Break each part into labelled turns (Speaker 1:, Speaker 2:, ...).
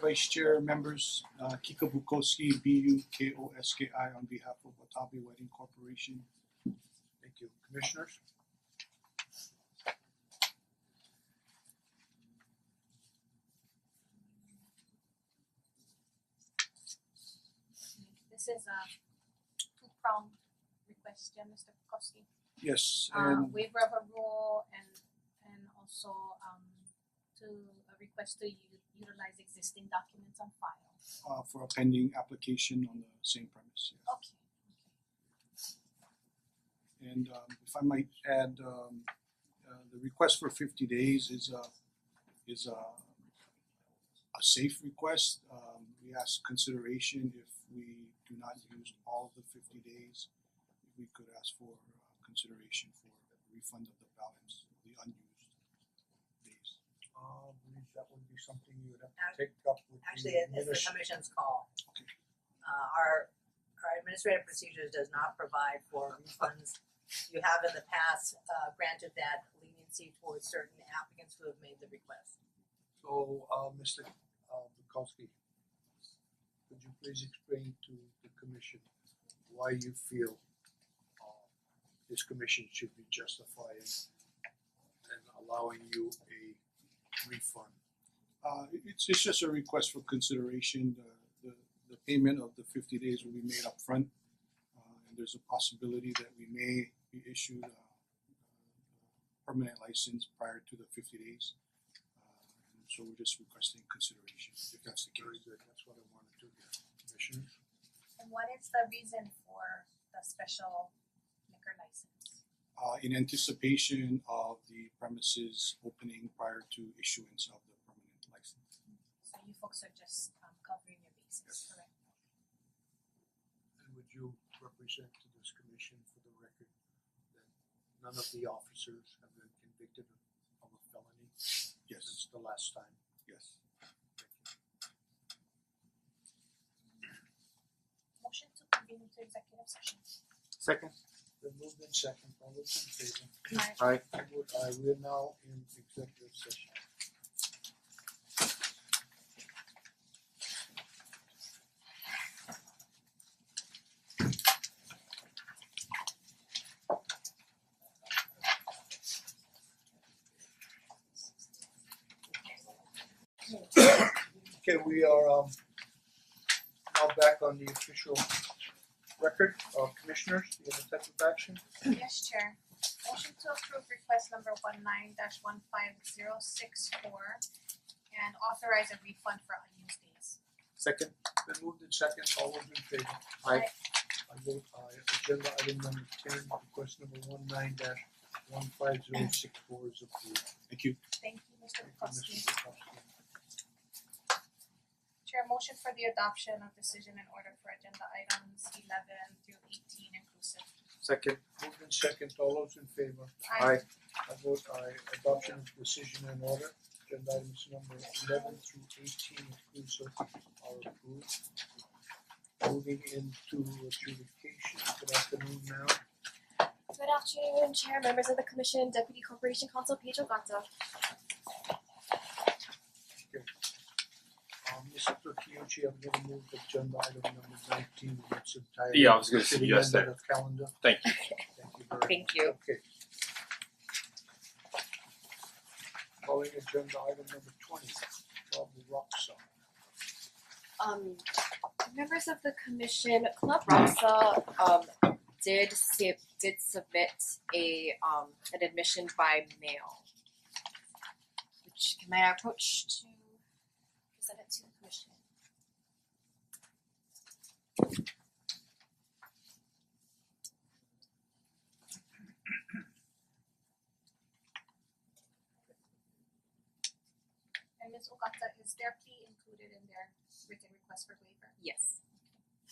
Speaker 1: Vice Chair, members, uh, Kika Bukowski, B U K O S K I on behalf of Watabe Wedding Corporation. Thank you, commissioners.
Speaker 2: This is a two prong request, yeah, Mister Koski.
Speaker 1: Yes,
Speaker 2: Uh
Speaker 1: and
Speaker 2: waiver of a rule and and also um to a request to u- utilize existing documents on file.
Speaker 1: uh for a pending application on the same premise, yes.
Speaker 2: Okay, okay.
Speaker 1: And um if I might add, um uh the request for fifty days is a is a a safe request. Um we ask consideration if we do not use all of the fifty days, we could ask for uh, consideration for refund of the balance, the unused days.
Speaker 3: Uh, I believe that would be something you would have to take up with the
Speaker 4: Actually, it- it's the
Speaker 3: adminis-
Speaker 4: commission's call.
Speaker 1: Okay.
Speaker 4: Uh, our, our administrative procedures does not provide for refunds. You have in the past, uh, granted that leniency towards certain applicants who have made the request.
Speaker 3: So, uh, Mister uh Bukowski, could you please explain to the commission why you feel uh this commission should be justifying and allowing you a refund?
Speaker 1: Uh it- it's it's just a request for consideration, the the the payment of the fifty days will be made upfront. Uh and there's a possibility that we may be issued a a permanent license prior to the fifty days. Uh and so we're just requesting consideration if that's the
Speaker 3: Very
Speaker 1: case.
Speaker 3: good, that's what I wanted to hear, Commissioner.
Speaker 2: And what is the reason for the special liquor license?
Speaker 1: Uh in anticipation of the premises opening prior to issuance of the permanent license.
Speaker 2: So you folks are just um covering your bases, correct?
Speaker 3: And would you represent to this commission for the record that none of the officers have been convicted of a felony
Speaker 1: Yes,
Speaker 3: since the last time?
Speaker 1: yes.
Speaker 2: Motion to convene into executive session.
Speaker 5: Second.
Speaker 3: Then moved in second, all those in favor?
Speaker 2: Aye.
Speaker 5: Aye.
Speaker 3: I vote aye, we are now in executive session. Okay, we are um now back on the official record of commissioners, the other type of action.
Speaker 2: Yes, Chair. Motion to approve request number one nine dash one five zero six four and authorize a refund for unused days.
Speaker 5: Second.
Speaker 3: Been moved in second, all those in favor?
Speaker 5: Aye.
Speaker 3: I vote aye, agenda item number ten, request number one nine dash one five zero six four is approved.
Speaker 1: Thank you.
Speaker 2: Thank you, Mr.
Speaker 3: Thank you,
Speaker 2: Bukowski.
Speaker 3: Mr. Bukowski.
Speaker 2: Chair, motion for the adoption of decision and order for agenda items eleven through eighteen inclusive.
Speaker 5: Second.
Speaker 3: Moved in second, all those in favor?
Speaker 5: Aye.
Speaker 3: I vote aye, adoption of decision and order, agenda items number eleven through eighteen inclusive are approved. Moving into adjudication, good afternoon now.
Speaker 6: Good afternoon, Chair, members of the Commission, Deputy Corporation Counsel Pedro Gata.
Speaker 3: Um Mr. Kiyuchi, I'm gonna move agenda item number nineteen in its entirety.
Speaker 7: Yeah, I was gonna
Speaker 3: City
Speaker 7: suggest that.
Speaker 3: amendment of calendar.
Speaker 7: Thank
Speaker 3: you. Thank you very much.
Speaker 4: Thank you.
Speaker 3: Okay. Calling agenda item number twenty, Bob Roxon.
Speaker 6: Um, members of the Commission, Club Rasa, um, did sub- did submit a, um, an admission by mail. Which, can I approach to present it to the Commission?
Speaker 2: And Ms. Ogata, is their plea included in their written request for waiver?
Speaker 6: Yes,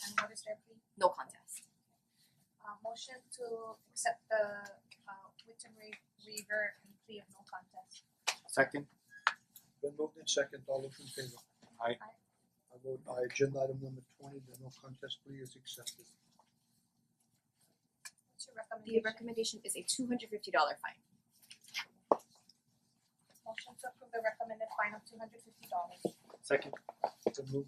Speaker 2: And what is their plea?
Speaker 6: no contest.
Speaker 2: Uh motion to accept the uh written wa- waiver and plea of no contest.
Speaker 5: Second.
Speaker 3: Been moved in second, all those in favor?
Speaker 5: Aye.
Speaker 2: Aye.
Speaker 3: I vote aye, agenda item number twenty, the no contest plea is accepted.
Speaker 2: What's your
Speaker 6: The
Speaker 2: recommendation?
Speaker 6: recommendation is a two hundred fifty dollar fine.
Speaker 2: Motion to approve the recommended fine of two hundred fifty dollars.
Speaker 5: Second.
Speaker 3: The move